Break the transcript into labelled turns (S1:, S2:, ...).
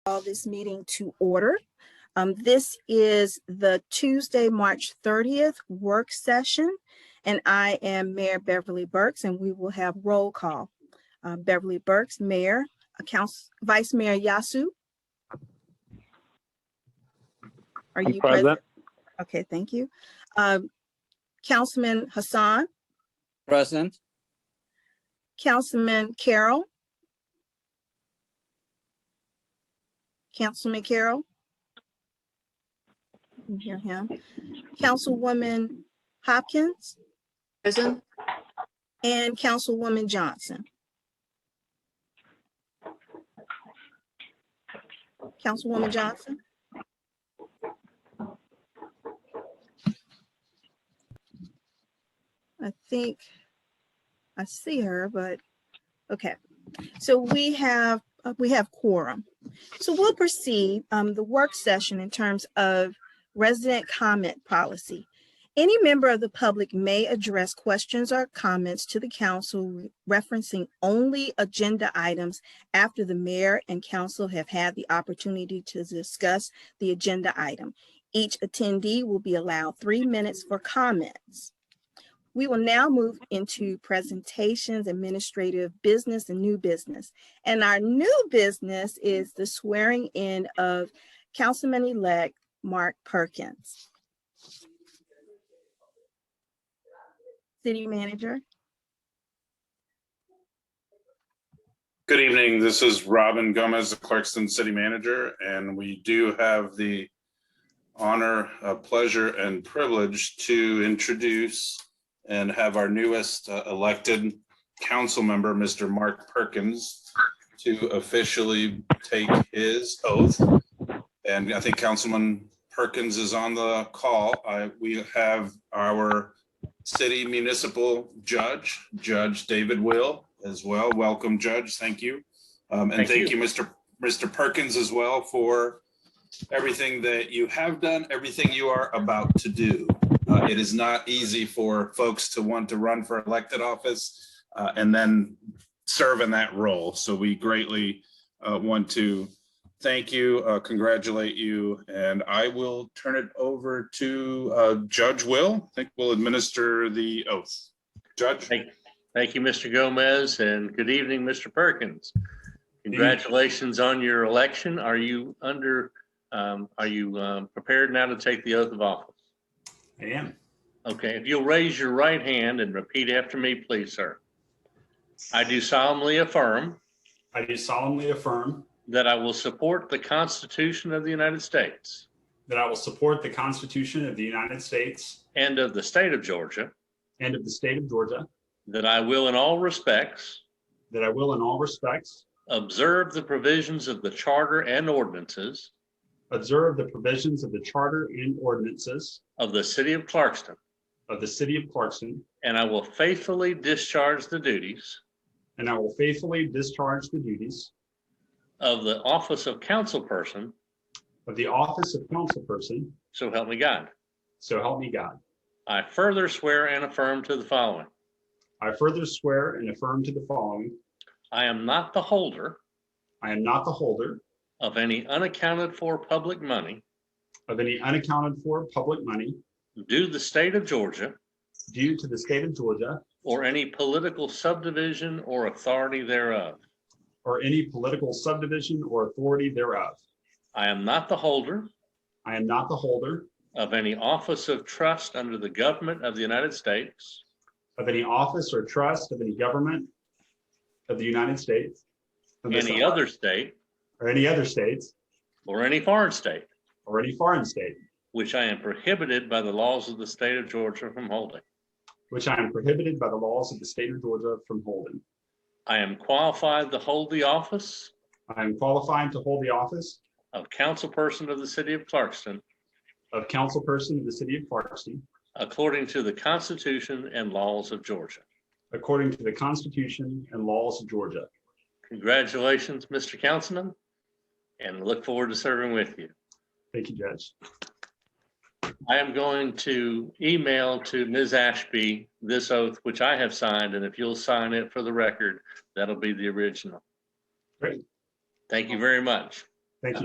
S1: call this meeting to order. Um, this is the Tuesday, March thirtieth work session. And I am Mayor Beverly Burks and we will have roll call. Uh, Beverly Burks, Mayor, uh, Council, Vice Mayor Yasu. Are
S2: I'm
S1: you
S2: present.
S1: present? Okay, thank you. Um, Councilman Hassan,
S3: Present.
S1: Councilman Carroll. Councilman Carroll. Can hear him. Councilwoman Hopkins
S4: Present,
S1: and Councilwoman Johnson. Councilwoman Johnson? I think I see her, but, okay. So we have, uh, we have quorum. So we'll proceed, um, the work session in terms of resident comment policy. Any member of the public may address questions or comments to the council referencing only agenda items after the mayor and council have had the opportunity to discuss the agenda item. Each attendee will be allowed three minutes for comments. We will now move into presentations, administrative business, and new business. And our new business is the swearing in of Councilman-elect Mark Perkins. City Manager.
S5: Good evening. This is Robin Gomez, the Clarkston City Manager, and we do have the honor, uh, pleasure, and privilege to introduce and have our newest uh, elected council member, Mr. Mark Perkins, to officially take his oath. And I think Councilman Perkins is on the call. I- We have our city municipal judge, Judge David Will as well. Welcome, Judge. Thank you. Um,
S2: Thank
S5: and thank you, Mr. Mr. Perkins as well for everything that you have done, everything you are about to do. Uh, it is not easy for folks to want to run for elected office, uh, and then serve in that role. So we greatly, uh, want to thank you, uh, congratulate you, and I will turn it over to, uh, Judge Will. I think we'll administer the oath. Judge?
S2: Thank- Thank you, Mr. Gomez, and good evening, Mr. Perkins.
S5: evening.
S2: Congratulations on your election. Are you under, um, are you um, prepared now to take the oath of office?
S6: I am.
S2: Okay, if you'll raise your right hand and repeat after me, please, sir. I do solemnly affirm
S6: I do solemnly affirm
S2: that I will support the Constitution of the United States
S6: that I will support the Constitution of the United States
S2: and of the state of Georgia,
S6: and of the state of Georgia,
S2: that I will in all respects
S6: that I will in all respects
S2: observe the provisions of the charter and ordinances
S6: observe the provisions of the charter and ordinances
S2: of the city of Clarkston,
S6: of the city of Clarkson,
S2: and I will faithfully discharge the duties
S6: and I will faithfully discharge the duties
S2: of the office of councilperson,
S6: of the office of councilperson,
S2: so help me God.
S6: so help me God.
S2: I further swear and affirm to the following.
S6: I further swear and affirm to the following,
S2: I am not the holder
S6: I am not the holder
S2: of any unaccounted for public money
S6: of any unaccounted for public money
S2: due the state of Georgia
S6: due to the state of Georgia
S2: or any political subdivision or authority thereof.
S6: or any political subdivision or authority thereof.
S2: I am not the holder
S6: I am not the holder
S2: of any office of trust under the government of the United States,
S6: of any office or trust of any government of the United States. of this
S2: any
S6: isle,
S2: other state,
S6: Or any other states,
S2: or any foreign state.
S6: or any foreign state,
S2: which I am prohibited by the laws of the state of Georgia from holding.
S6: which I am prohibited by the laws of the state of Georgia from holding.
S2: I am qualified to hold the office
S6: I am qualified to hold the office
S2: of councilperson of the city of Clarkston
S6: of councilperson of the city of Clarkston
S2: according to the Constitution and laws of Georgia.
S6: according to the Constitution and laws of Georgia.
S2: Congratulations, Mr. Councilman, and look forward to serving with you.
S6: Thank you, Judge.
S2: I am going to email to Ms. Ashby this oath, which I have signed, and if you'll sign it for the record, that'll be the original.
S6: Great.
S2: Thank you very much.